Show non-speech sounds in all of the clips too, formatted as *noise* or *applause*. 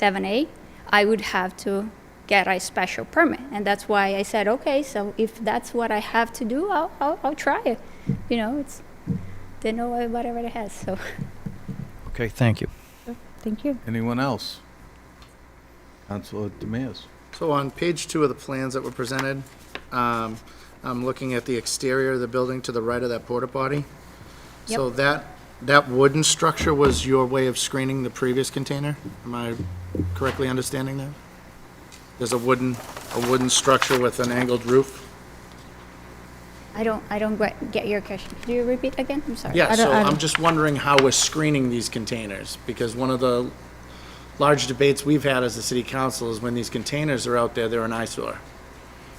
7A, I would have to get a special permit. And that's why I said, okay, so if that's what I have to do, I'll, I'll, I'll try it. You know, it's, they know what everybody has, so. *laughs* Okay, thank you. Thank you. Anyone else? Councilor Demias. So on page two of the plans that were presented, um, I'm looking at the exterior of the building to the right of that porta potty. So that, that wooden structure was your way of screening the previous container? Am I correctly understanding that? There's a wooden, a wooden structure with an angled roof? I don't, I don't get, get your question. Could you repeat again? I'm sorry. Yeah, I don't- so I I'm don't- just wondering how we're screening these containers, because one of the large debates we've had as a city council is when these containers are out there, they're an eyesore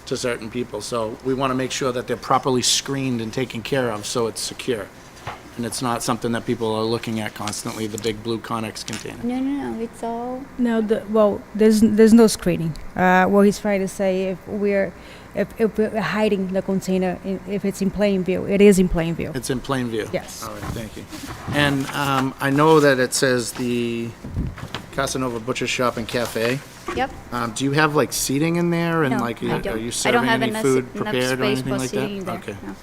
to certain people. So we want to make sure that they're properly screened and taken care of, so it's secure. And it's not something that people are looking at constantly, the big blue Conex container. No, no, no, it's all, No, the, well, there's there's no screening. Uh, what he's trying to say, if we're if, if we're hiding the container, i- if it's in plain view, it is in plain view. It's in plain view? Yes. All right, thank you. And um, I know that it says the Casanova Butcher Shop and Cafe. yep. Um, do you have like seating in there and No, like, I are don't. you I don't serving have any enough- food enough prepared or space anything for like that? seating there, Okay. no.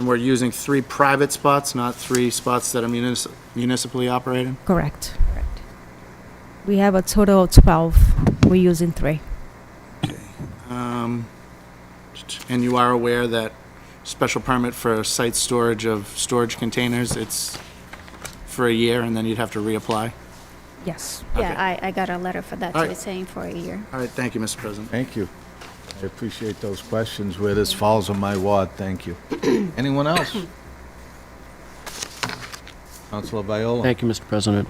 And we're using three private spots, not three spots that are munis- municipally operated? Correct. Correct. We have a total of twelve. We're using three. And you are aware that special permit for site storage of storage containers, it's for a year and then you'd have to reapply? Yes. Yeah, I, I got a letter for that, so All right. it's saying for a year. All right, thank you, Mr. President. Thank you. I appreciate those questions where this falls on my ward. Thank *coughs* you. Anyone *coughs* else? Councilor Viola. Thank you, Mr. President.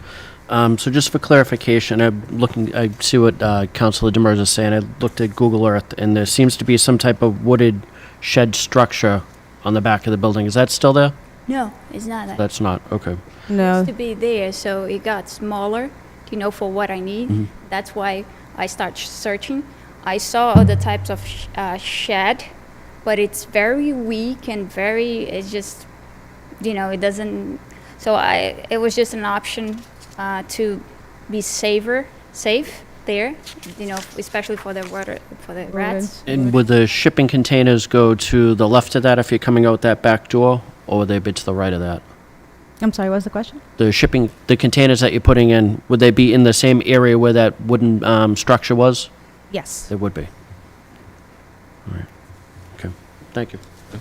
Um, So just for clarification, I'm looking, I see what uh, Councilor Demers is saying. I looked at Google Earth, and there seems to be some type of wooded shed structure on the back of the building. Is that still there? No, it's not that. That's not, okay. No. used to be there, so it got smaller, you know, for what I need. That's why I start sh- searching. I saw other types of sh- uh, shed, but it's very weak and very, it's just, you know, it doesn't. So I, it was just an option uh, to be safer, safe there, you know, especially for the water, for the rats. And would the shipping containers go to the left of that if you're coming out that back door, or would they be to the right of that? I'm sorry. What's the question? The shipping, the containers that you're putting in, would they be in the same area where that wooden um, structure was? Yes. They would be. All right. Okay, thank you. *coughs*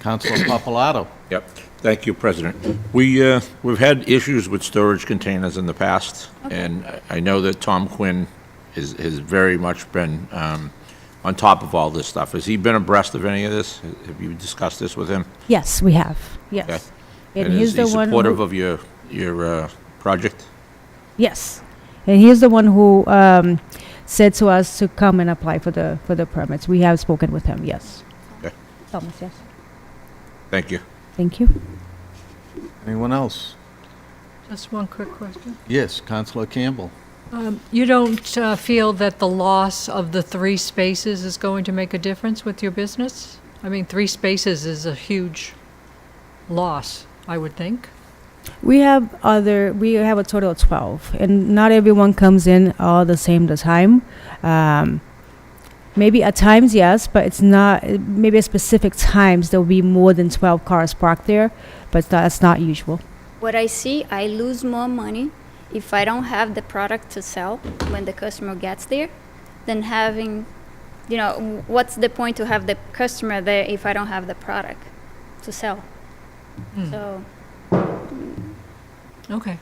Councilor Papalato. Yep. Thank you, President. We, uh, we've had issues with storage containers in the past, and I- I know that Tom Quinn is, has very much been um, on top of all this stuff. Has he been abreast of any of this? Have you discussed this with him? Yes, we have. Yes. Okay. And, is he's the he one. supportive who- of your, your uh, project? Yes, and he's the one who um, said to us to come and apply for the for the permits. We have spoken with him. Yes. Okay. Thomas. Yes. Thank you. Thank you. Anyone else? Just one quick question. Um, Yes, Councilor Campbell. You don't uh, feel that the loss of the three spaces is going to make a difference with your business? I mean, three spaces is a huge loss, I would think. We have other. We have a total of twelve, and not everyone comes in all the same the time. Um, maybe at times yes, but it's not. Maybe at specific times there will be more than twelve cars parked there, but that's not usual. What I see, I lose more money if I don't have the product to sell when the customer gets there than having, you know, w- what's the point to have the customer there if I don't have the product to sell? So Okay.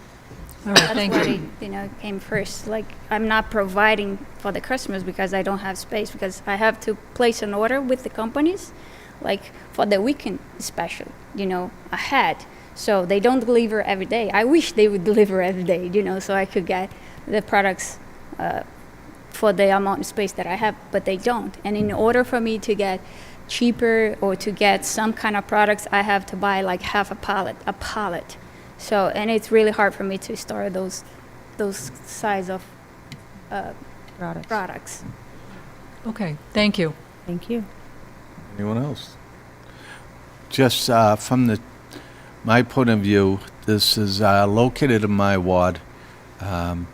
All right, that's thank what you. it, you know, came first. Like, I'm not providing for the customers because I don't have space because I have to place an order with the companies, like for the weekend especially, you know, ahead. So they don't deliver every day. I wish they would *laughs* deliver every day, you know, so I could get the products uh, for the amount of space that I have, but they don't. And in order for me to get cheaper or to get some kind of products, I have to buy like half a pallet, a pallet. So, and it's really hard for me to store those, those size of uh, products. Okay, thank you. Thank you. Anyone else? Just uh, from the, my point of view, this is uh, located in my ward. Um,